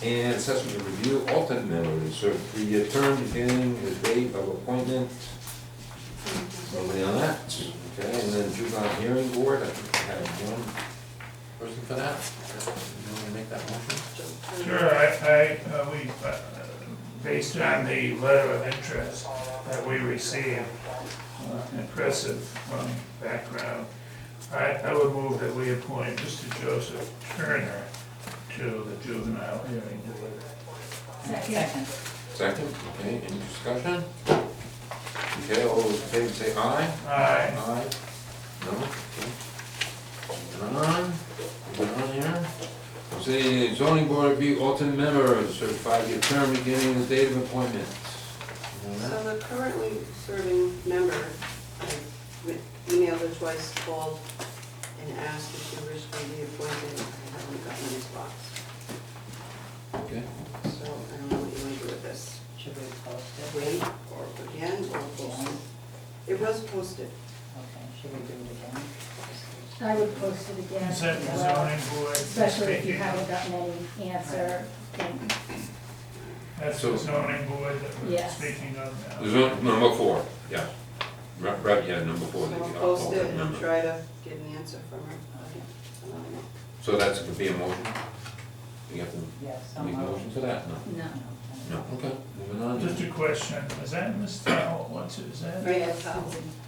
And assessment to review alternate member to serve three-year term beginning the date of appointment. Nobody on that? Okay, and then juvenile hearing board, I think I have one. Person for that? You want to make that motion? Sure, I, I, uh, we, uh, based on the letter of interest that we received, uh, impressive um, background, I, I would move that we appoint Mr. Joseph Turner to the juvenile hearing board. Second. Second, okay, any discussion? Okay, all those in favor say aye. Aye. Aye. No? Okay. Moving on, moving on here. Say zoning board review alternate members, serve five-year term beginning the date of appointment. You know that? So the currently serving member, I re- emailed her twice, called and asked if she wished to be appointed. I haven't gotten a response, Okay, so I don't know what you want to do with this. Should we post it? Wait or again or post it? It was posted. Okay, should we do it again? I would post it again. Is that the as well, zoning board Especially if you speaking? haven't gotten any answer. then- That's So- the zoning board that we're Yes. speaking of The now. zone- number four, yeah. Right, right, yeah, number So four. the I'll post it alternate and I'll member. try to get an answer from her. I don't know. So that's, could be a motion? You have to Yes. make a motion for that, no? No. Okay. No, okay, moving on. Just a question, is that Ms. Howell, what's, is that? Right, that's how-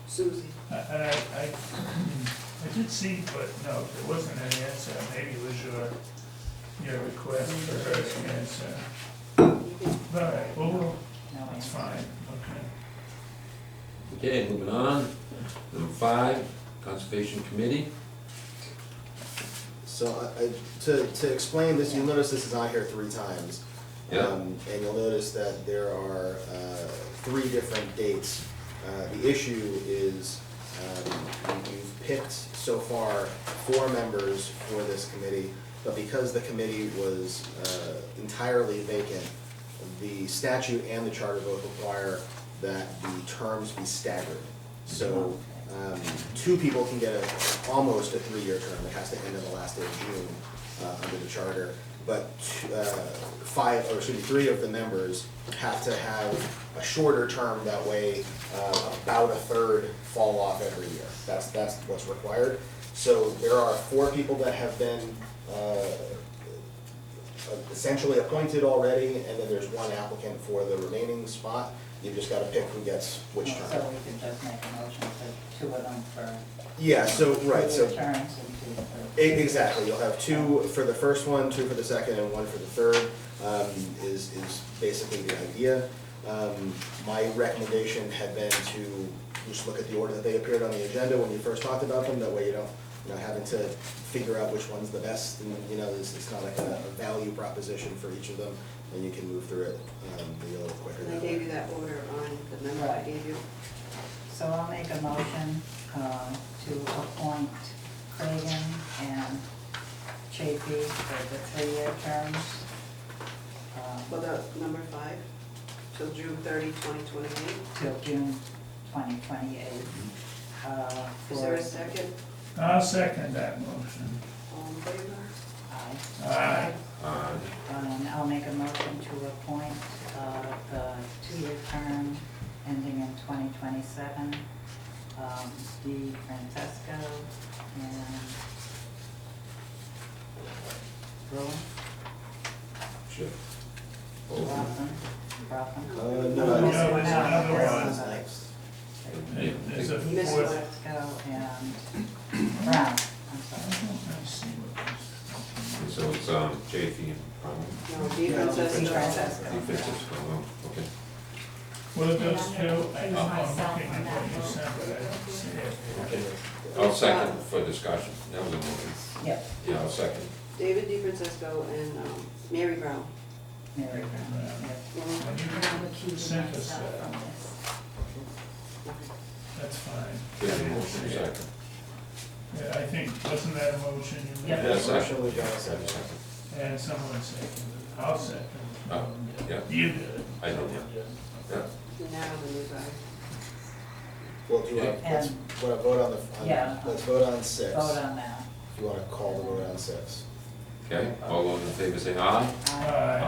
Susie, I- And I, I, I did see, but no, there wasn't an answer, maybe it was your, your request for her to answer. you can All right, well, well, No, that's it's- fine, okay. Okay, moving on. Number five, conservation committee. So I- I, to, to explain this, you'll notice this is on here three times. Yeah. Um, And you'll notice that there are uh, three different dates. Uh, The issue is, um, you- you've picked so far four members for this committee, but because the committee was uh, entirely vacant, the statute and the charter both require that the terms be staggered. So um, two people can get a, almost a three-year term, it has to end on the last day of June uh, under the charter. But uh, five, or excuse me, three of the members have to have a shorter term, that way uh, about a third fall off every year. That's, that's what's required. So there are four people that have been uh, essentially appointed already, and then there's one applicant for the remaining spot. You've just gotta pick who gets which So term. we can just make a motion for two of them for. Yeah, so, right, so, three Terms and two for. e- exactly, you'll have two for the first one, two for the second, and one for the third, um, is, is basically the idea. Um, my recommendation had been to just look at the order that they appeared on the agenda when you first talked about them, that way you don't, you know, having to figure out which one's the best, and, you know, it's, it's not like a a value proposition for each of them, and you can move through it, um, a little quicker. And I that way. gave you that order on the number I gave you. So I'll make a motion, um, to appoint Cragen and Chafee for the three-year terms. um, Well, the number five, till June 30, 2028. till June twenty twenty-eight. Uh, Is there for, a second? I'll second that motion. All in favor? aye. Aye. Uh, Um, I'll make a motion to appoint, uh, the two-year term ending in twenty twenty-seven, um, Di Francesco and Rowan, sure. Oh, Rothman, Rothman. Uh, no, No, I- Missed one there's out. another Missed one. one out. yeah, There's a Miss fourth. Francesco and Brown, I'm I sorry. don't know, I see what this- So it's, um, JFE and, um, No, Di No, Di Francesco. Francesco. Steve Francisco, oh, okay. Well, those two, I- I'm looking And myself on at that what you vote. sent, but I don't see it. Okay, I'll second for discussion, that was a motion. Yep, Yeah, I'll second. David Di Francesco and um, Mary Brown. Mary Brown, yep. Yeah, When And I'm you- accusing Sent us myself that. from this. That's fine. There's a motion, Yeah, second. I think, wasn't that a motion you made? Yeah. Yeah, second. Motion, we got a Yeah, second. second. And someone seconded, it. I'll second. it. Oh, yeah. You did. it. I did, yeah. Yeah. and now the new guy. Well, do you want, Yeah. let's, want to vote on the, Yeah. on- let's vote on six. Vote on that. If you want to call the vote on six. Okay, all those in favor say aye? Aye. Aye.